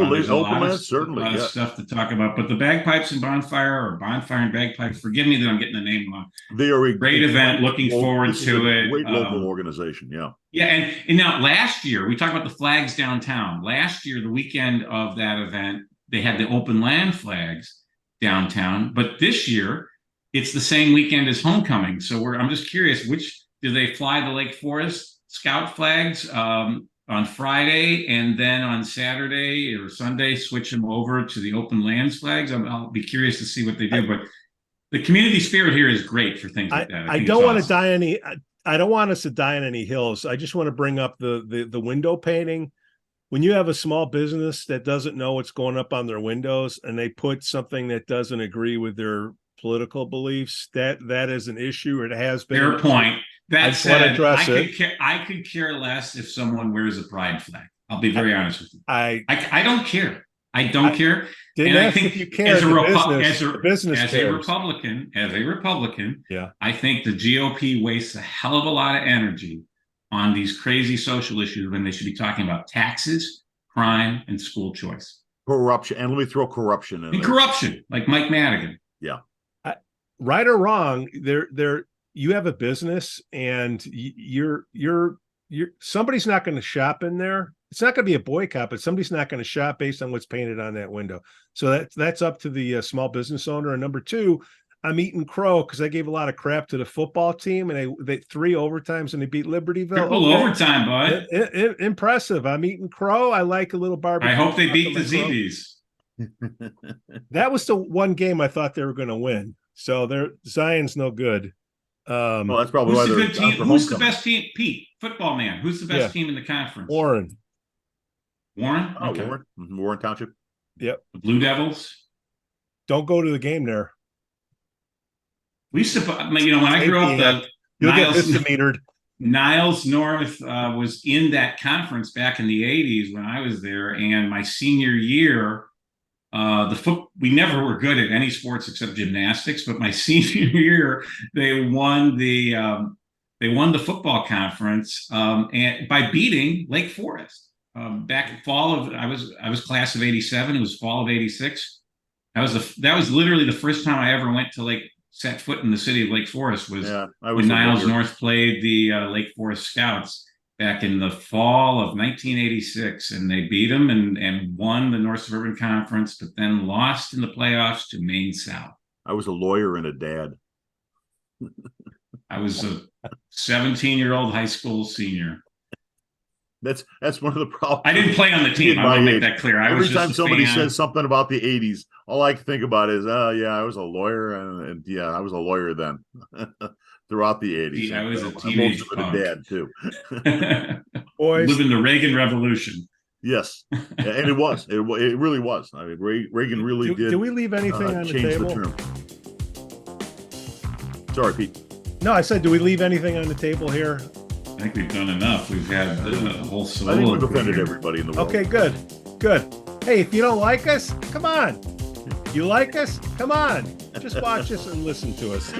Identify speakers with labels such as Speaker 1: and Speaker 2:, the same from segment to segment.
Speaker 1: Well,
Speaker 2: there's a
Speaker 1: open
Speaker 2: lot of-
Speaker 1: mic, certainly,
Speaker 2: lot of
Speaker 1: yeah.
Speaker 2: Stuff to talk about, but the bagpipes and bonfire or bonfire and bagpipes, forgive me that I'm getting the name wrong.
Speaker 1: They are a
Speaker 2: Great event, looking
Speaker 1: Well,
Speaker 2: forward
Speaker 1: this is a
Speaker 2: to it.
Speaker 1: Great
Speaker 2: Um,
Speaker 1: local organization, yeah.
Speaker 2: Yeah, and, and now last year, we talked about the flags downtown. Last year, the weekend of that event, they had the open land flags downtown. But this year, it's the same weekend as homecoming. So we're I'm just curious, which do they fly the Lake Forest Scout flags um, on Friday and then on Saturday or Sunday switch them over to the open lands flags? I'm, I'll be curious to see what they do, but the community spirit here is great for things like that.
Speaker 3: I, I
Speaker 2: think it's
Speaker 3: don't want to
Speaker 2: awesome.
Speaker 3: die any. I, I don't want us to die on any hills. I just want to bring up the the the window painting. When you have a small business that doesn't know what's going up on their windows and they put something that doesn't agree with their political beliefs, that that is an issue. It has been.
Speaker 2: Fair point.
Speaker 3: I
Speaker 2: That
Speaker 3: just wanna
Speaker 2: said, I
Speaker 3: address
Speaker 2: could
Speaker 3: it.
Speaker 2: care, I could care less if someone wears a pride flag. I'll be very honest with you.
Speaker 3: I
Speaker 2: I, I don't care. I don't
Speaker 3: I-
Speaker 2: care.
Speaker 3: didn't
Speaker 2: And I
Speaker 3: ask
Speaker 2: think
Speaker 3: if you cared.
Speaker 2: as a
Speaker 3: The
Speaker 2: Repu-
Speaker 3: business,
Speaker 2: as a-
Speaker 3: the business
Speaker 2: As a
Speaker 3: cares.
Speaker 2: Republican, as a Republican.
Speaker 3: Yeah.
Speaker 2: I think the GOP wastes a hell of a lot of energy on these crazy social issues when they should be talking about taxes, crime, and school choice.
Speaker 1: Corruption, and let me throw corruption
Speaker 2: And
Speaker 1: in there.
Speaker 2: corruption, like Mike Madigan.
Speaker 3: right or wrong there there you have a business and y- you're you're you're somebody's not going to shop in there it's not going to be a boycott but somebody's not going to shop based on what's painted on that window so that's that's up to the uh, small business owner and number two i'm eating crow because i gave a lot of crap to the football team and they they three overtimes and they beat libertyville
Speaker 2: Triple
Speaker 3: Okay.
Speaker 2: overtime, bud.
Speaker 3: I- I- I- impressive i'm eating crow i like a little barbecue
Speaker 2: I hope they
Speaker 3: sauce on
Speaker 2: beat the
Speaker 3: my crow.
Speaker 2: ZBs.
Speaker 3: that was the one game i thought they were going to win so they're zion's no good um
Speaker 1: Well, that's probably why
Speaker 2: Who's the
Speaker 1: they're
Speaker 2: good team?
Speaker 1: after
Speaker 2: Who's the
Speaker 1: homecoming.
Speaker 2: best team? Pete, football man. Who's the best
Speaker 3: Yeah.
Speaker 2: team in the conference?
Speaker 3: Warren.
Speaker 2: Warren.
Speaker 1: Oh,
Speaker 2: Okay.
Speaker 1: Warren, Mhm, Warren Township.
Speaker 2: The Blue Devils.
Speaker 3: Don't go to the game there.
Speaker 2: We used to, I mean, you know, when I grew up, the
Speaker 3: You'll get
Speaker 2: Niles,
Speaker 3: misdemeanored.
Speaker 2: Niles North uh, was in that conference back in the '80s when I was there, and my senior year, uh, the foot we never were good at any sports except gymnastics. But my senior year, they won the um, they won the football conference um, and by beating Lake Forest. Um, back in fall of I was I was class of '87. It was fall of '86. That was the that was literally the first time I ever went to like set foot in the city of Lake Forest was
Speaker 1: Yeah, I was
Speaker 2: when
Speaker 1: in that
Speaker 2: Niles
Speaker 1: year.
Speaker 2: North played the uh, Lake Forest Scouts back in the fall of 1986, and they beat them and and won the North Suburban Conference, but then lost in the playoffs to Maine South.
Speaker 1: I was a lawyer and a dad.
Speaker 2: I was a 17 year old high school senior.
Speaker 1: That's that's one of the problems.
Speaker 2: I didn't play on the team.
Speaker 1: Kid
Speaker 2: I want to
Speaker 1: my
Speaker 2: make
Speaker 1: age.
Speaker 2: that clear. I was
Speaker 1: Every
Speaker 2: just
Speaker 1: time
Speaker 2: a
Speaker 1: somebody
Speaker 2: fan.
Speaker 1: says something about the '80s, all I can think about is, "Oh yeah, I was a lawyer, and, and yeah, I was a lawyer then." Throughout the '80s,
Speaker 2: I was a
Speaker 1: I'm also
Speaker 2: teenage
Speaker 1: a
Speaker 2: punk.
Speaker 1: dad too.
Speaker 3: Boys,
Speaker 2: living the Reagan Revolution.
Speaker 1: Yes, and it was. It, wa- it really was. I mean, Re- Reagan really
Speaker 3: do,
Speaker 1: did.
Speaker 3: do we leave anything
Speaker 1: uh,
Speaker 3: on the
Speaker 1: change
Speaker 3: table?
Speaker 1: term. Sorry, Pete.
Speaker 3: no, I said, do we leave anything on the table here?
Speaker 2: I think we've done enough. We've had uh, a whole
Speaker 1: I think
Speaker 2: solo.
Speaker 1: we've offended everybody in the world.
Speaker 3: Okay, good. Good. Hey, if you don't like us, come on. You like us? Come on. Just watch us and listen to us.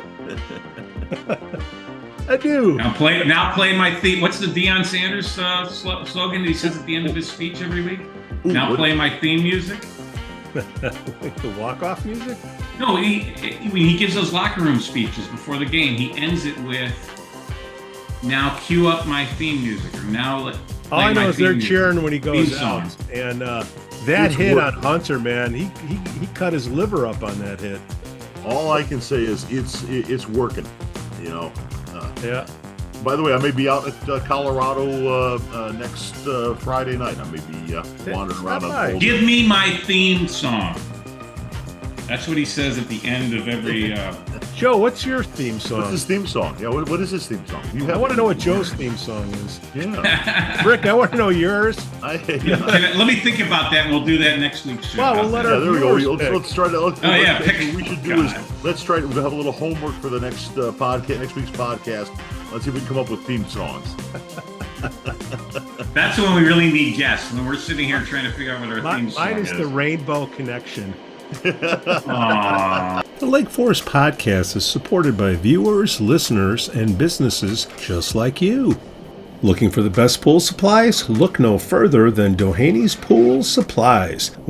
Speaker 3: Adieu.
Speaker 2: Now play now play my theme. What's the Deion Sanders uh, slo- slogan that he says at the end of his speech every week?
Speaker 1: Ooh,
Speaker 2: Now
Speaker 1: what-
Speaker 2: play my theme music.
Speaker 3: the walk-off music?
Speaker 2: No, he, he- when he gives those locker room speeches before the game, he ends it with "Now cue up my theme music." Or now let.
Speaker 3: All I
Speaker 2: play my
Speaker 3: know is they're
Speaker 2: theme music."
Speaker 3: cheering when he goes
Speaker 2: Theme
Speaker 3: out.
Speaker 2: song.
Speaker 3: And uh, that
Speaker 1: It's
Speaker 3: hit
Speaker 1: work.
Speaker 3: on Hunter, man, he, he he cut his liver up on that hit.
Speaker 1: All I can say is it's it, it's working. You know. Uh,
Speaker 3: Yeah.
Speaker 1: by the way, I may be out at uh, Colorado uh, uh, next uh, Friday night. I may be uh, wandering
Speaker 3: Stop
Speaker 1: around. on
Speaker 3: by.
Speaker 1: Boulder.
Speaker 2: Give me my theme song. That's what he says at the end of every. Uh,
Speaker 3: Joe, what's your theme
Speaker 1: What's
Speaker 3: song?
Speaker 1: his theme song? Yeah, what, what is his theme song? You
Speaker 3: I
Speaker 1: have
Speaker 3: want to
Speaker 1: it?
Speaker 3: know what Joe's theme song is.
Speaker 1: Yeah.
Speaker 3: Rick, I want to know yours.
Speaker 1: I, yeah.
Speaker 2: Can I- let me think about that. and We'll do that next week's show.
Speaker 3: Well, we'll
Speaker 2: How's
Speaker 3: let
Speaker 2: that?
Speaker 3: our
Speaker 1: Yeah, there we go.
Speaker 3: viewers
Speaker 1: Let's,
Speaker 3: pick.
Speaker 1: let's try to. Let's,
Speaker 2: Oh,
Speaker 1: let's-
Speaker 2: yeah, pick-
Speaker 1: what we should do
Speaker 2: God.
Speaker 1: is let's try to we'll have a little homework for the next uh, podcast, next week's podcast. Let's see if we can come up with theme songs.
Speaker 2: That's when we really need guests. When we're sitting here trying to figure out what our
Speaker 3: Mi-
Speaker 2: theme song
Speaker 3: mine is the Rainbow Connection.
Speaker 2: Aw.
Speaker 3: The Lake Forest Podcast is supported by viewers, listeners, and businesses just like you. Looking for the best pool supplies? Look no further than Dohany's Pool Supplies.